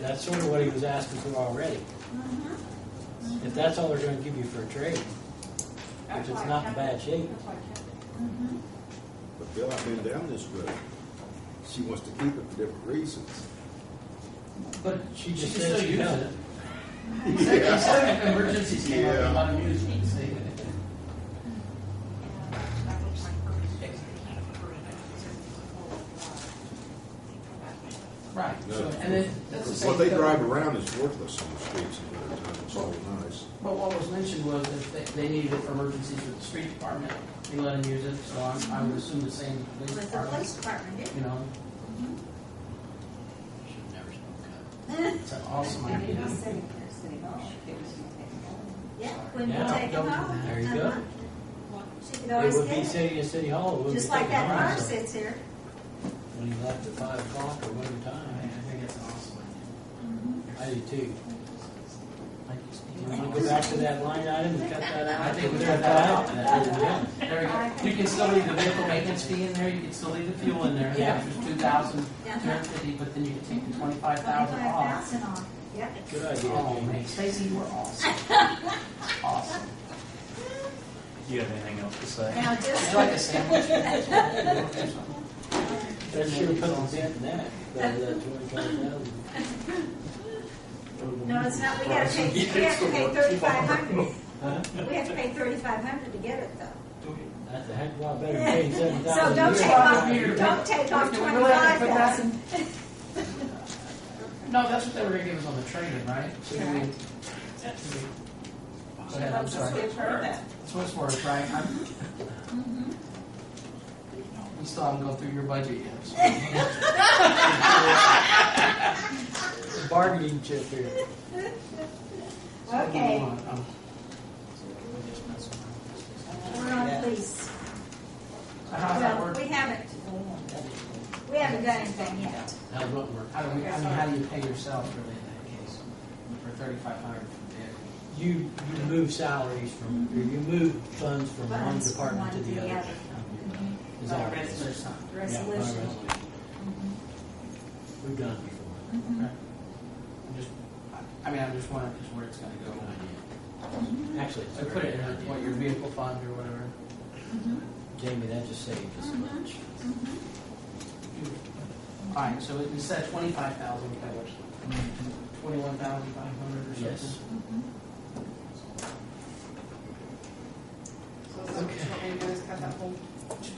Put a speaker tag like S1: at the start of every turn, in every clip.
S1: That's sort of what he was asking for already.
S2: Mm-hmm.
S1: If that's all they're gonna give you for a trade,
S2: That's
S1: If it's
S2: why I
S1: not in
S2: kept it.
S1: bad shape.
S2: That's why I kept it.
S3: But Bill, I've been down this road. She wants to keep it for different reasons.
S4: But
S1: she just
S4: can
S1: said
S4: still
S1: she
S4: use
S1: does
S4: it.
S1: it.
S4: Except except if emergencies came up, a lot of news, you see.
S2: That looks like perfect space to keep it for it. It's a whole lot.
S4: Right,
S3: No.
S4: so, and then, that's the same.
S3: What they
S4: thing.
S3: drive around is worthless on the streets in winter time. It's all nice.
S4: But what was mentioned was if they, they needed it for emergencies with the street department, they let them use it, so I'm, I would assume the same
S2: It
S4: police
S2: was the
S4: department,
S2: police department, didn't
S4: you
S2: it?
S4: know?
S1: Should never smoke
S4: It's an awesome idea.
S2: Yeah, when you
S1: Yeah,
S2: take them
S4: don't-
S2: home.
S1: there you go.
S2: She
S1: pot.
S2: could
S1: It
S2: always
S1: would be
S2: get it,
S1: sitting in City Hall. it would
S2: just
S1: be
S2: like that
S1: taken on,
S2: bar
S1: so
S2: sits here.
S1: When he left at five o'clock or whatever
S4: I mean,
S1: time,
S4: I think it's an awesome idea.
S1: I do too.
S4: Like
S1: Do you
S4: you
S1: wanna go back to that line item and cut that out?
S4: I think we
S1: Cut
S4: cut that out.
S1: That would be done.
S4: There you go. You can still leave the vehicle maintenance fee in there, you can still leave the fuel in there, the
S1: Yeah.
S4: extra two thousand, two hundred fifty, but then you can take the twenty-five thousand
S2: Twenty-five
S4: off.
S2: thousand on, yep.
S1: Good idea,
S4: Oh,
S1: Jamie.
S4: man, Stacy, you were awesome. Awesome.
S5: Do you have anything else to say?
S2: Now
S4: Would
S2: just,
S4: you like a sandwich? Or something?
S1: That sure puts a dent in that, that, that twenty-five thousand.
S2: no, it's not, we gotta pay, we have to pay thirty-five hundred.
S1: Huh?
S2: We have to pay thirty-five hundred to get it though.
S1: That's a heck of a lot better than paying seven
S2: So
S1: thousand a year.
S2: don't take off, don't take off
S4: Do we really have
S2: twenty-five
S4: to put that in?
S2: thousand.
S4: No, that's what they were gonna give us on the trade-in, right? So do we-
S2: Right.
S4: Go ahead, I'm sorry.
S2: give her that.
S4: That's what it's worth, right? I'm-
S2: Mm-hmm.
S4: We still haven't gone through your budget yet. so-
S1: Bargaining chip here.
S2: Okay,
S4: Um,
S2: we're on police.
S4: So how's that
S2: Well,
S4: work?
S2: we haven't, we haven't done anything yet.
S1: That would work.
S4: How do we, I mean, how do you pay yourself really in that case for thirty-five hundred for the vehicle?
S1: You, you move salaries from, or you move funds from one
S2: Funds from
S1: department to
S2: one
S1: the
S2: to the
S1: other. Oh,
S2: other.
S1: Is that
S4: Or
S1: right?
S4: is there something?
S1: Yeah, by
S2: Resolution.
S1: resolution. We've done it before.
S4: Okay. I'm just, I- I mean, I'm just wondering just where it's gonna go.
S1: Good idea. Actually, it's
S4: So
S1: a
S4: put
S1: very
S4: it in,
S1: good
S4: a- what, your
S1: idea.
S4: vehicle fund or whatever.
S1: Jamie, that just saved us much.
S4: All right, so instead of twenty-five thousand, we have twenty-one thousand five hundred or something?
S1: Yes.
S6: So is that what you want me to do, is cut that whole,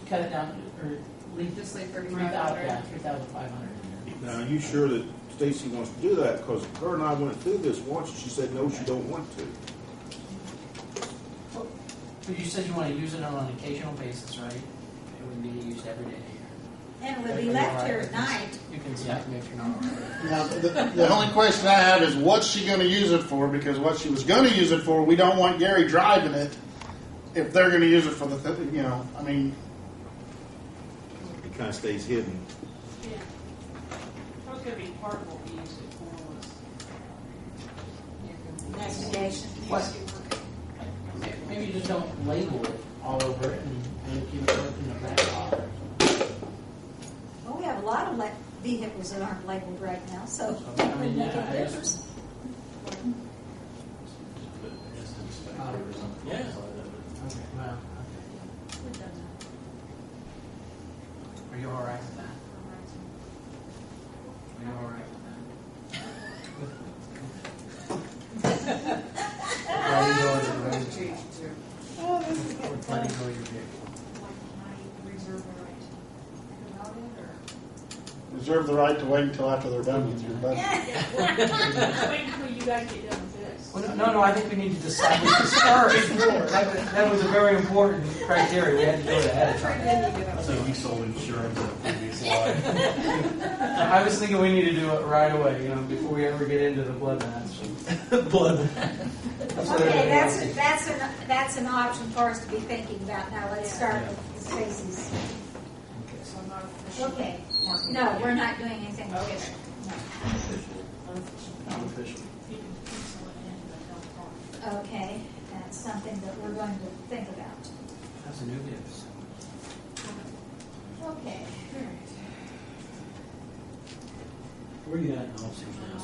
S4: Cut it down, or leave
S6: just like
S4: three
S6: thirty-five
S4: thousand,
S6: hundred?
S4: yeah, three thousand five hundred in
S3: Now, are you sure that Stacy wants to do that? Because her and I went through this once, and she said, no, she don't want to.
S4: there. But you said you wanna use it on an occasional basis, right? It would be used every day here.
S2: And we'll be left here at night.
S4: You can smack me if you're not.
S7: Now, the, the only question I have is what's she going to use it for? Because what she was going to use it for, we don't want Gary driving it. If they're going to use it for the, th- you know, I mean,
S3: It kind of stays hidden.
S6: Yeah. That was gonna be part of what we used it for was.
S2: Investigation.
S4: What? Maybe you just don't label it all over it and, and keep it in the back office.
S2: Well, we have a lot of le- vehicles that aren't labeled right now, so
S4: So,
S2: that
S4: I
S2: would
S4: mean,
S2: make
S4: yeah,
S2: a
S4: I guess-
S2: difference.
S1: Yeah.
S4: Okay, well, okay. Are you all right with that? Are you all right with that? Letting go of your- letting go of your vehicle.
S7: reserve the right to wait until after they're done with your budget.
S6: Wait until you guys get done with this.
S4: Well, no, no, I think we need to decide what this first. That was, that was a very important criteria, we had to do it ahead of time.
S5: So you sold insurance on the previous slide.
S4: I was thinking we need to do it right away, you know, before we ever get into the blood match.
S1: Blood.
S2: Okay, that's, that's an, that's an option for us to be thinking about now. Let's start with the spaces.
S6: So I'm not official.
S2: Okay, no, we're not doing anything official.
S4: Unofficial.
S6: You can put someone in, but don't talk.
S2: Okay, that's something that we're going to think about.
S4: That's a new gift.
S2: Okay.
S1: Where you at in officers now?